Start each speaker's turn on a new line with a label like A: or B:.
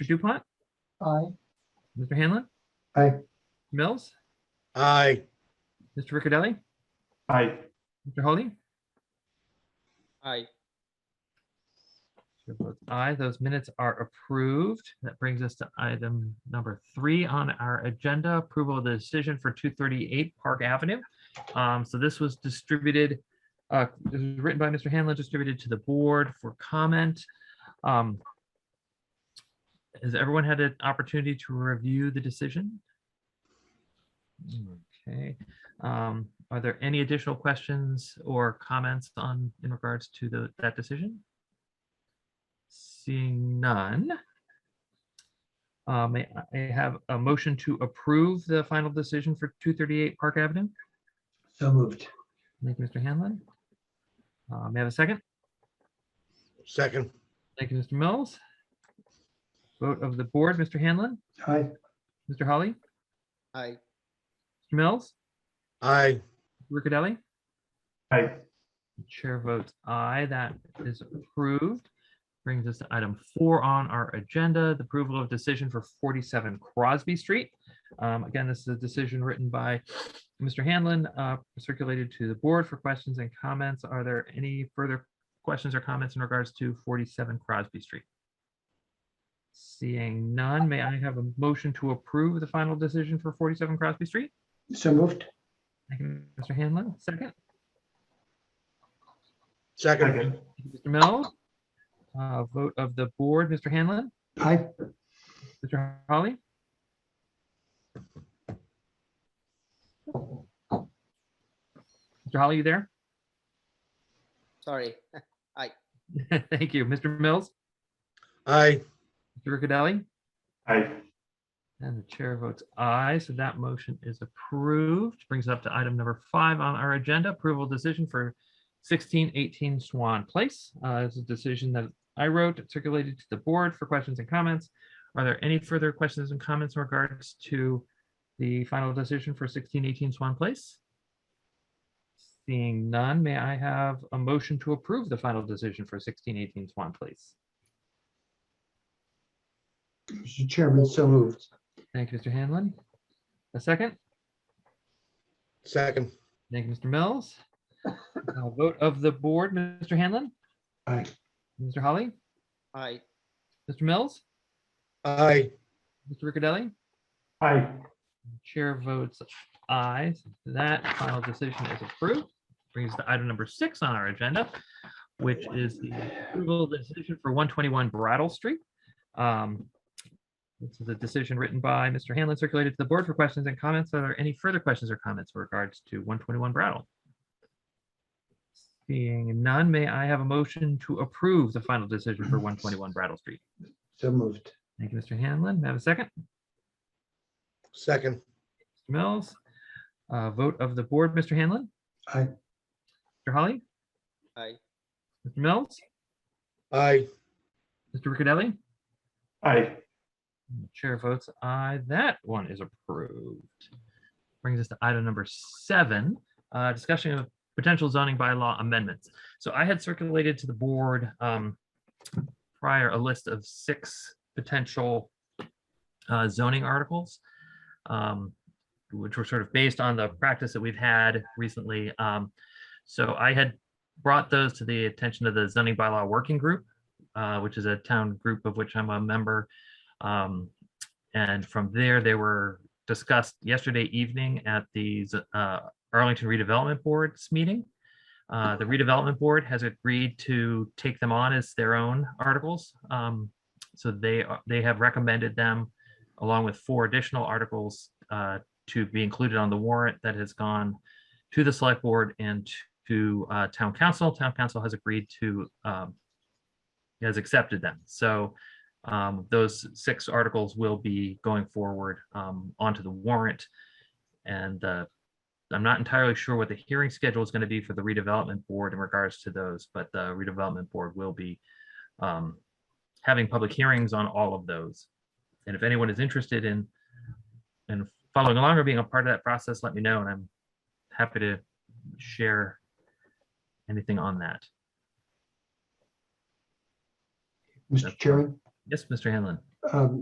A: Mr. Dupont,
B: Aye.
A: Mr. Hanlon,
B: Aye.
A: Mills,
C: Aye.
A: Mr. Riccadelli,
B: Aye.
A: Mr. Holly.
D: Aye.
A: Chair votes Aye, those minutes are approved. That brings us to item number three on our agenda, approval of the decision for two thirty-eight Park Avenue. Um, so this was distributed, uh, this was written by Mr. Hanlon, distributed to the board for comment. Um, Has everyone had an opportunity to review the decision? Okay, um, are there any additional questions or comments on, in regards to the, that decision? Seeing none. Uh, may I I have a motion to approve the final decision for two thirty-eight Park Avenue?
B: So moved.
A: Thank you, Mr. Hanlon. Uh, may I have a second?
C: Second.
A: Thank you, Mr. Mills. Vote of the board, Mr. Hanlon,
B: Aye.
A: Mr. Holly,
D: Aye.
A: Mr. Mills,
C: Aye.
A: Riccadelli.
B: Aye.
A: Chair votes aye, that is approved. Brings us to item four on our agenda, the approval of decision for forty-seven Crosby Street. Um, again, this is a decision written by Mr. Hanlon, uh, circulated to the board for questions and comments. Are there any further questions or comments in regards to forty-seven Crosby Street? Seeing none, may I have a motion to approve the final decision for forty-seven Crosby Street?
B: So moved.
A: Thank you, Mr. Hanlon, second.
C: Second.
A: Thank you, Mr. Mills. Uh, Vote of the board, Mr. Hanlon,
B: Aye.
A: Mr. Holly, Mr. Holly, you there?
D: Sorry.
A: Thank you. Mr. Mills,
C: Aye.
A: Mr. Riccadelli,
B: Aye.
A: and the chair votes aye, so that motion is approved. Brings up to item number five on our agenda, approval decision for sixteen eighteen Swan Place. Uh, This is a decision that I wrote, It circulated to the board for questions and comments. Are there any further questions and comments in regards to the final decision for sixteen eighteen Swan Place? Seeing none, may I have a motion to approve the final decision for sixteen eighteen Swan Place?
B: Mr. Chairman, so moved.
A: Thank you, Mr. Hanlon. A second?
C: Second.
A: Thank you, Mr. Mills. Uh, Vote of the board, Mr. Hanlon,
B: Aye.
A: Mr. Holly,
D: Aye.
A: Mr. Mills,
C: Aye.
A: Mr. Riccadelli.
B: Aye.
A: Chair votes aye. That final decision is approved. Brings us to item number six on our agenda, which is the approval of the decision for one twenty-one Brattle Street. Um, This is a decision written by Mr. Hanlon, circulated to the board for questions and comments. Are there any further questions or comments with regards to one twenty-one Brattle? Seeing none, may I have a motion to approve the final decision for one twenty-one Brattle Street?
B: So moved.
A: Thank you, Mr. Hanlon. May I have a second?
C: Second.
A: Mr. Mills. Uh, Vote of the board, Mr. Hanlon?
B: Aye.
A: Mr. Holly?
D: Aye.
A: Mr. Mills?
C: Aye.
A: Mr. Riccadelli?
B: Aye.
A: And the Chair votes aye. That one is approved. Brings us to item number seven, uh, discussion of potential zoning bylaw amendments. So I had circulated to the board um, prior a list of six potential uh, zoning articles, um, which were sort of based on the practice that we've had recently. Um, So I had brought those to the attention of the zoning bylaw working group, uh, which is a town group of which I'm a member. Um, and from there, they were discussed yesterday evening at the Z- uh, Arlington Redevelopment Board's meeting. Uh, the redevelopment board has agreed to take them on as their own articles. Um, so they are- they have recommended them along with four additional articles uh, to be included on the warrant that has gone to the select board and to uh, town council. Town council has agreed to um, has accepted them. So um, those six articles will be going forward, um, onto the warrant. And, uh, I'm not entirely sure what the hearing schedule is going to be for the redevelopment board in regards to those, but the redevelopment board will be, um, having public hearings on all of those. And if anyone is interested in, in following along or being a part of that process, let me know, and I'm happy to share anything on that.
B: Mr. Chairman,
A: Yes, Mr. Hanlon?
B: um,